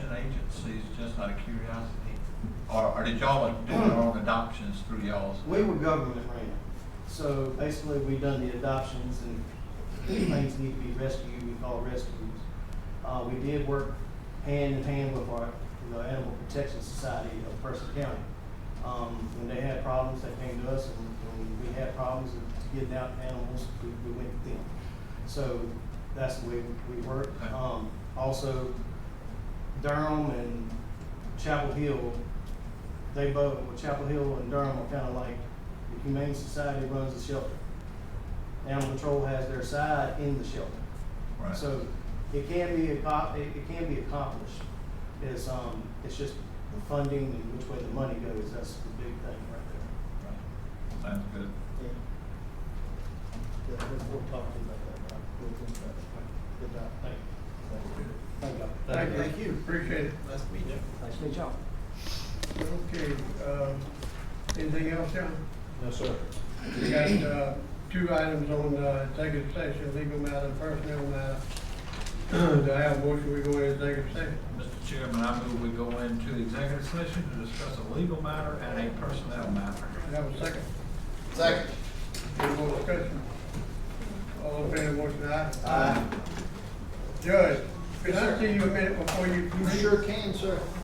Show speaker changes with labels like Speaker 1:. Speaker 1: just out of curiosity? Or, or did y'all do your own adoptions through y'all's?
Speaker 2: We were government ran, so basically we done the adoptions and if things need to be rescued, we call rescues. Uh, we did work hand in hand with our, the Animal Protection Society of Person County. Um, when they had problems, they came to us, and when we had problems with getting out animals, we, we went to them. So that's the way we work.
Speaker 1: Okay.
Speaker 2: Um, also Durham and Chapel Hill, they both, well, Chapel Hill and Durham are kinda like, the Humane Society runs the shelter. Animal Control has their side in the shelter.
Speaker 1: Right.
Speaker 2: So it can be, acco- it, it can be accomplished. It's, um, it's just the funding and which way the money goes, that's the big thing right there.
Speaker 1: Right. Sounds good.
Speaker 3: Yeah, Yeah, we'll, we'll talk to you about that, Bob. We'll think about it. Good job.
Speaker 2: Thank you.
Speaker 3: Thank you.
Speaker 4: Thank thank you, appreciate it.
Speaker 3: Nice to meet you. Nice to meet y'all.
Speaker 4: Okay, um, anything else, John?
Speaker 3: No, sir.
Speaker 4: We got, uh, two items on, uh, executive session, legal matter, and personnel matter. Do I have a motion, we go into executive session?
Speaker 1: Mr. Chairman, I move we go into executive session to discuss a legal matter and a personnel matter.
Speaker 4: Do I have a second?
Speaker 3: Second.
Speaker 4: Any more discussion? All in favor, motion aye?
Speaker 3: Uh,
Speaker 4: Aye. Judge, can I see you a minute before you?
Speaker 3: You sure can, sir.